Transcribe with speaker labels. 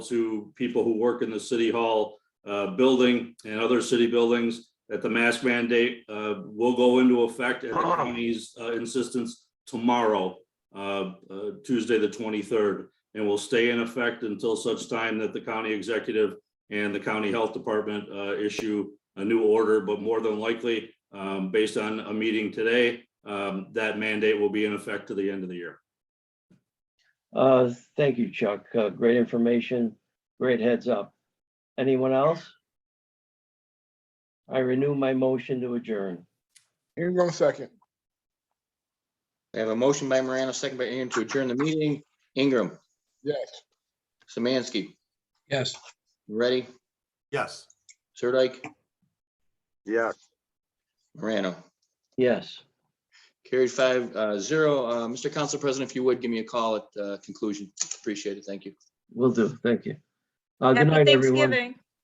Speaker 1: to people who work in the city hall uh, building and other city buildings that the mask mandate uh, will go into effect at the county's uh, insistence tomorrow, uh, uh, Tuesday, the 23rd, and will stay in effect until such time that the county executive and the county health department uh, issue a new order, but more than likely, um, based on a meeting today, um, that mandate will be in effect to the end of the year.
Speaker 2: Uh, thank you, Chuck. Uh, great information, great heads up. Anyone else? I renew my motion to adjourn.
Speaker 3: Ingram second.
Speaker 4: We have a motion by Morano, second by Ingram to adjourn the meeting. Ingram,
Speaker 3: Yes.
Speaker 4: Samansky,
Speaker 5: Yes.
Speaker 4: ready?
Speaker 6: Yes.
Speaker 4: Sirdike,
Speaker 7: Yes.
Speaker 4: Morano.
Speaker 2: Yes,
Speaker 4: Carried five uh, zero. Uh, Mr. Council President, if you would, give me a call at uh, conclusion. Appreciate it. Thank you.
Speaker 2: we will do. Thank you. Uh, good
Speaker 8: Happy
Speaker 2: night, everyone.
Speaker 8: Thanksgiving.